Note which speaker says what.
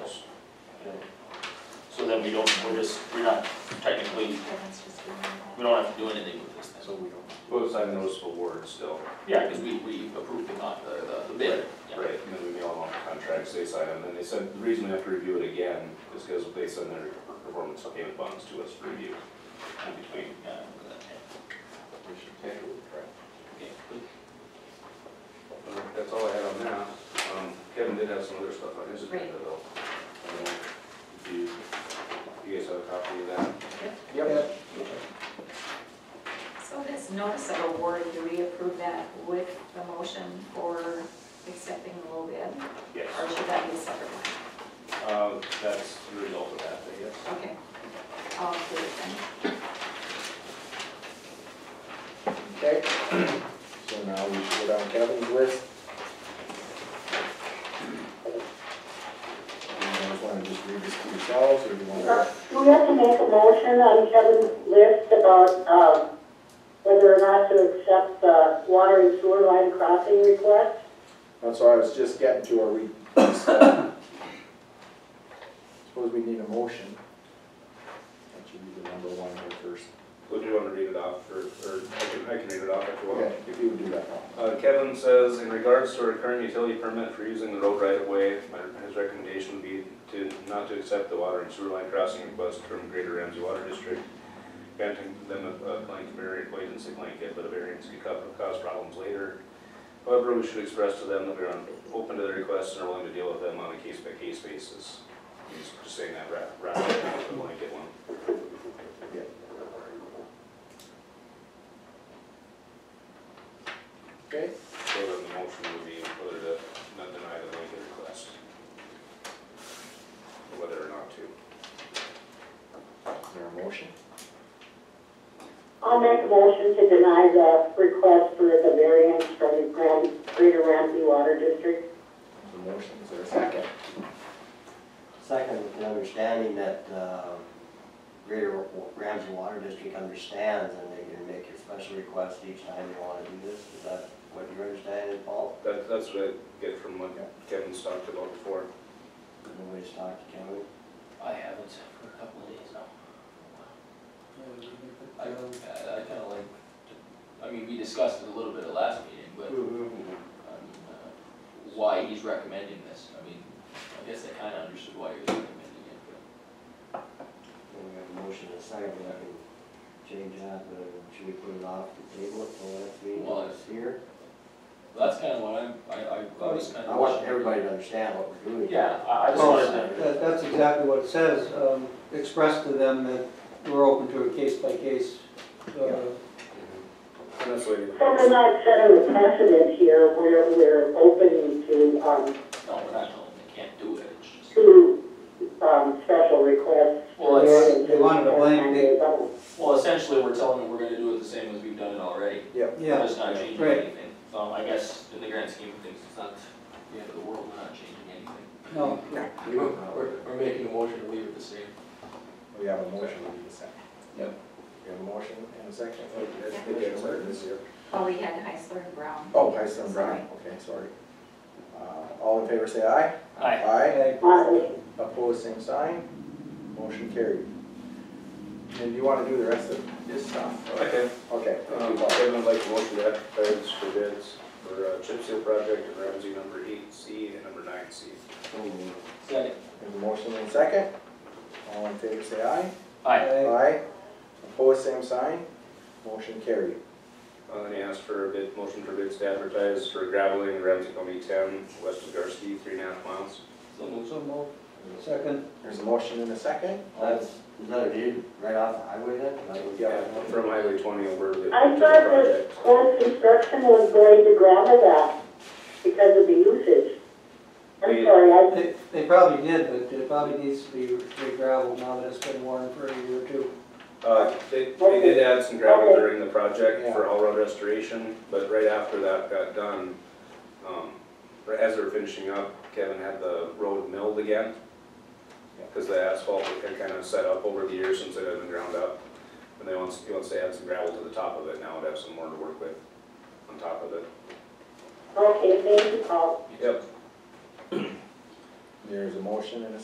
Speaker 1: then we don't, we're just, we're not technically,
Speaker 2: That's just being
Speaker 1: we don't have to do anything with this thing.
Speaker 3: So we don't,
Speaker 4: We'll sign the notice of award still,
Speaker 1: Yeah, because we, we approved the, con- the, the- the bid. yeah.
Speaker 4: right, and then we mail them all the contracts, they sign them, and they send, the reason we have to review it again is because they send their performance payment bonds to us for review in between.
Speaker 1: Yeah, I remember that, yeah.
Speaker 3: we should
Speaker 4: Okay,
Speaker 1: Okay, good.
Speaker 4: Uh, That's all I had on that. Um, Kevin did have some other stuff on his agenda though. I don't know if you, you guys have a copy of that?
Speaker 3: Yep.
Speaker 2: So this notice of award, do we approve that with the motion for accepting the low bid?
Speaker 4: Yes.
Speaker 2: Or should that be a separate one?
Speaker 4: Uh, that's the result of that, I guess.
Speaker 2: Okay. I'll do it then.
Speaker 3: Okay, so now we should go down Kevin's list. Do you guys wanna just read this to yourselves, or do you
Speaker 5: Uh,
Speaker 3: wanna?
Speaker 5: Who has to make a motion on Kevin's list about um, whether or not to accept the water and sewer line crossing request?
Speaker 3: That's what I was just getting to, are we? Suppose we need a motion. That should be the number one here first.
Speaker 4: Would you want to read it off or, or I can, I can read it off if you want?
Speaker 3: Okay, if you would do that now.
Speaker 4: Uh, Kevin says, in regards to our current utility permit for using the road right of way, my- his recommendation would be to not to accept the water and sewer line crossing request from Greater Ramsey Water District, granting them a, a blank variant, wait and see blanket, but a variance could co- cause problems later. However, we should express to them that we are open to their requests and are willing to deal with them on a case-by-case basis. He's just saying that ra- rather than the blanket one.
Speaker 3: Okay,
Speaker 4: So then the motion would be whether to not deny the blanket request. Or whether or not to.
Speaker 3: is there a motion?
Speaker 5: I'll make a motion to deny the request for the variance from the Gran- Greater Ramsey Water District.
Speaker 3: The motion, is there a second?
Speaker 6: Second, with the understanding that uh, Greater Ramsey Water District understands and they can make your special request each time you want to do this. Is that what you're understanding, Paul?
Speaker 4: That, that's what I get from what Kevin's talked about before.
Speaker 6: Nobody's talked to Kevin?
Speaker 1: I haven't for a couple of days now. I, I kinda like, to- I mean, we discussed it a little bit at last meeting, but, I
Speaker 3: Mm-hmm.
Speaker 1: mean, uh, why he's recommending this, I mean, I guess I kinda understood why he was recommending it, but.
Speaker 6: Then we have a motion and a second, I can change that, but should we put it off the table until next meeting,
Speaker 1: Well,
Speaker 6: it's here?
Speaker 1: Well, That's kinda what I'm, I, I, I was kinda.
Speaker 6: I want everybody to understand what we're doing.
Speaker 1: Yeah, I, I just.
Speaker 7: Well,
Speaker 1: wanted to-
Speaker 7: that- That's exactly what it says, um, express to them that we're open to a case-by-case,
Speaker 3: Yeah.
Speaker 7: uh,
Speaker 4: And Mm-hmm. that's what I
Speaker 5: So we're not setting the precedent here where we're open to, um,
Speaker 1: No, we're not telling them they can't do it, it's just.
Speaker 5: to um, special requests.
Speaker 1: Well, it's-
Speaker 7: they wanted a blank date.
Speaker 1: Well, essentially, we're telling them we're gonna do it the same as we've done it already. We're
Speaker 7: yeah.
Speaker 1: just not changing
Speaker 7: right.
Speaker 1: anything. Um, I guess in the grand scheme of things, it's not the end of the world, we're not changing anything.
Speaker 7: No,
Speaker 3: We don't know.
Speaker 1: we're making a motion to leave it the same.
Speaker 3: We have a motion, we need a second.
Speaker 1: Yep.
Speaker 3: We have a motion and a second.
Speaker 4: Oh, that's the dance order this year.
Speaker 2: Well, we had Heisler and Brown.
Speaker 3: Oh, Heisler Brown, okay, sorry. Uh, all in favor, say aye.
Speaker 1: Aye.
Speaker 3: Aye.
Speaker 5: Aye.
Speaker 3: Opposed, same sign. Motion carried. And you wanna do the rest of this stuff?
Speaker 4: Okay,
Speaker 3: Okay.
Speaker 4: um, Kevin would like to motion to advertise for bids for uh, chip seal project in Ramsey number eight C and number nine C.
Speaker 1: Second.
Speaker 3: There's a motion and a second. All in favor, say aye.
Speaker 1: Aye.
Speaker 7: Aye.
Speaker 3: Opposed, same sign. Motion carried.
Speaker 4: Uh, and he asked for a bid, motion for bids to advertise for graveling in Ramsey County ten, west of Garski, three and a half miles.
Speaker 1: So moved.
Speaker 7: So moved. Second,
Speaker 3: There's a motion and a second.
Speaker 6: That's, is that a deed right off the highway then?
Speaker 3: Yeah.
Speaker 4: From Highway twenty over the.
Speaker 5: I
Speaker 4: to the
Speaker 5: thought that
Speaker 4: project.
Speaker 5: Quad Construction was going to gravel that because of the usage. I'm
Speaker 4: We-
Speaker 5: sorry, I,
Speaker 7: they, they probably did, but it probably needs to be re-gravelled now that it's been worn for a year or two.
Speaker 4: Uh, they, they did add some gravel during the project for all road restoration, but right after that got done, um, or as they were finishing up, Kevin had the road milled again. Cause the asphalt had kind of set up over the years since it had been ground up. And they wants, he wants to add some gravel to the top of it now to have some more to work with on top of it.
Speaker 5: okay, thank you, Paul.
Speaker 4: Yep.
Speaker 3: There's a motion and a